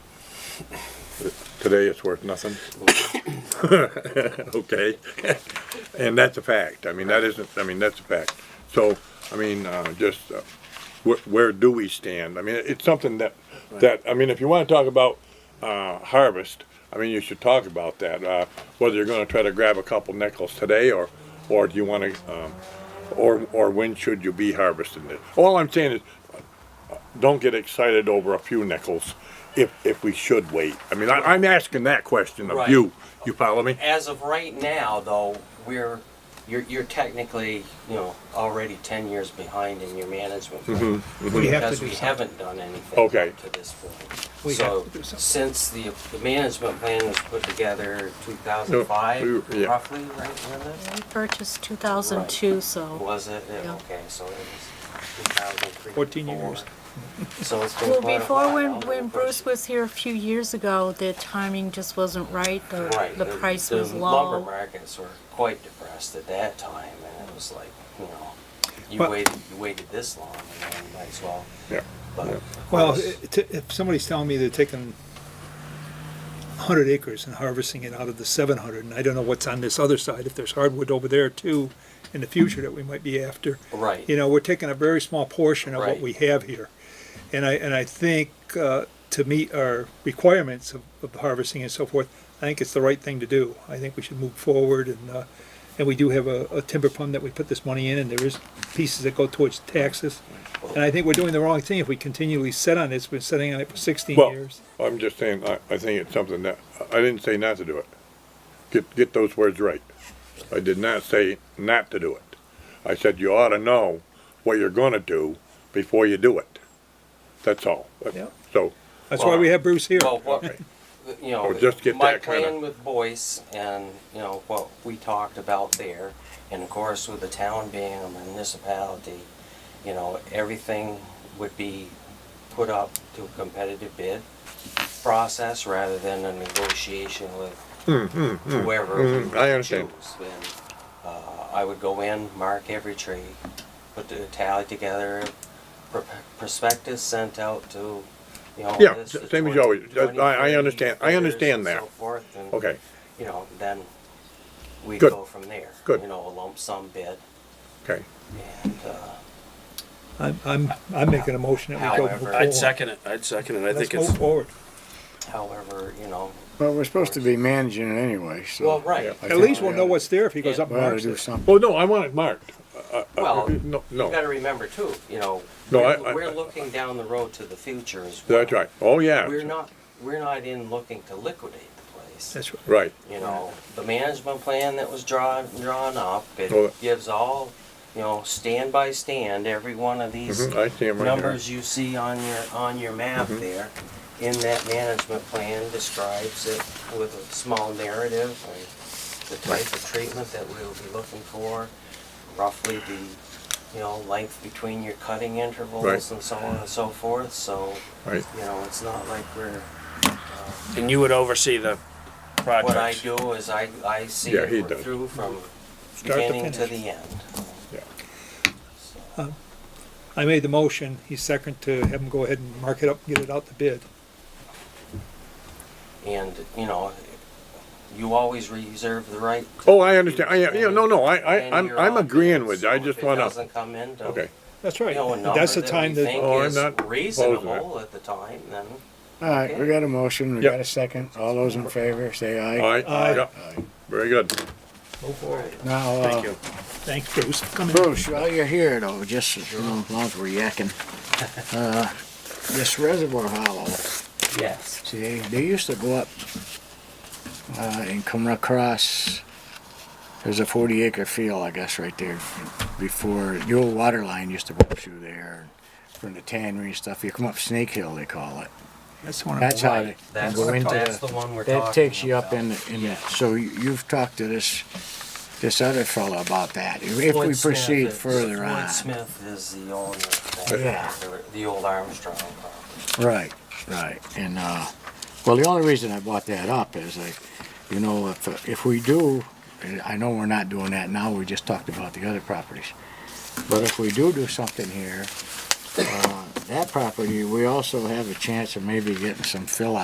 Today it's worth nothing. Okay, and that's a fact, I mean, that isn't, I mean, that's a fact. So, I mean, uh, just, uh, where, where do we stand? I mean, it's something that, that, I mean, if you wanna talk about, uh, harvest, I mean, you should talk about that, uh, whether you're gonna try to grab a couple nickels today, or, or do you wanna, um, or, or when should you be harvesting it? All I'm saying is, don't get excited over a few nickels if, if we should wait. I mean, I, I'm asking that question of Right. you, you follow me? As of right now, though, we're, you're, you're technically, you know, already ten years behind in your management. plan, We have Because to do we something. haven't done anything. Mm-hmm, Okay. up To this point. We So, have to do something. since the, the management plan was put together two thousand No, five, we- yeah. roughly, right, Linda? We purchased 2002, so Was it? Yeah, Yeah. Okay, so it was two thousand three. 14 years. So it's been well, quite a before when, while. when Bruce was here a few years ago, the timing just wasn't right. The, Right, the price was the Lumber low. markets were quite depressed at that time, and it was like, you know, you But- waited, you waited this long, and then might as well. Yeah. But Yeah. of Well, course, it- t- if somebody's telling me they're taking 100 acres and harvesting it out of the 700, and I don't know what's on this other side, if there's hardwood over there too in the future that we might be after. Right. You know, we're taking a very small portion of what Right. we have here. And I, and I think uh, to meet our requirements of of harvesting and so forth, I think it's the right thing to do. I think we should move forward and, uh, and we do have a a timber fund that we put this money in and there is pieces that go towards taxes. And I think we're doing the wrong thing if we continually sit on this. We're sitting on it for 16 Well, years. I'm just saying, I, I think it's something that, I didn't say not to do it. Get, get those words right. I did not say not to do it. I said you ought to know what you're gonna do before you do it. That's all. Yeah. So, That's why we have Bruce here. Well, what, you know, Or Oh, just get my that kinda- plan with Boyce and, you know, what we talked about there, and of course with the town being a municipality, you know, everything would be put up to a competitive bid process rather than a negotiation with Hmm, whoever we mm, I understand. choose. And, uh, I would go in, mark every tree, put the tally together, pr- prospectus sent out to, you know. Yeah, this, the same as 20 always. I- I 23 understand- I bidders understand and that. So forth, and, okay, you know, then we Good. go from there. Good. You know, a lump sum bid, okay. and, uh, I'm, I'm, I'm making a motion that we go However- forward. I'd second it, I'd second it, I Let's think it's, move forward. however, you know, Well, we're supposed to be managing it anyway, so. well, right. I At think least we'll we know oughta- what's there if he goes Yeah. up We and ought to marks do it. something. Well, no, I want it marked. Uh, Well, you No, no, gotta remember too, you know, No, I- we're I- we're looking down the road to the future as well. that's right. Oh, yeah. We're not, we're not in looking to liquidate the place. That's right. Right, You know, the management plan that was drawn, drawn up, Oh. it gives all, you know, stand by stand, every one of these Mhm, I Mm-hmm. see 'em right here. numbers you see on your, on your map there, in that management plan describes it with a small narrative, like the type of treatment that we will be looking for, roughly the, you know, length between your cutting intervals Right. and so on and so forth, so, right. you know, it's not like we're and you would oversee the project. what I do is I, I see Yeah, he it does. through from Start to beginning to finish. the end. Yeah. I made the motion. He's second to have him go ahead and mark it up, and get it out the bid. And, you know, you always reserve the right. Oh, I understand. I, yeah, no, no, I, I, in I'm, your I'm own agreeing bids, with you. I so if just it wanna, doesn't come in to, okay. That's you right. know, a And number That's the that time we that, think Oh, I'm is not opposed to reasonable at the time, then, All right, we got a motion, we Yep. got a second. All those in favor, say All aye. right, Aye. yeah, very good. Now, Thank uh, you. thanks Bruce for coming. in. Bruce, while you're here though, just as long as we're yakking, uh, this reservoir hollow, yes. see, they used to go up, uh, and come across, there's a forty acre field, I guess, right there before, the old water line used to go up through there from the tannery and stuff. You come up Snake Hill, they call it. That's the one. I'm- That's how they. That's, go into that's the- the one we're talking That takes you up about. in, the- in, the- so you- you've talked to this, this other fellow about that, if if we Floyd Smith proceed is- further on. Floyd Smith is the owner of that, Yeah. the- the old Armstrong property. Right, right, and, uh, well, the only reason I brought that up is like, you know, if, if we do, and I know we're not doing that now, we just talked about the other properties. But if we do do something here, uh, that property, we also have a chance of maybe getting some fill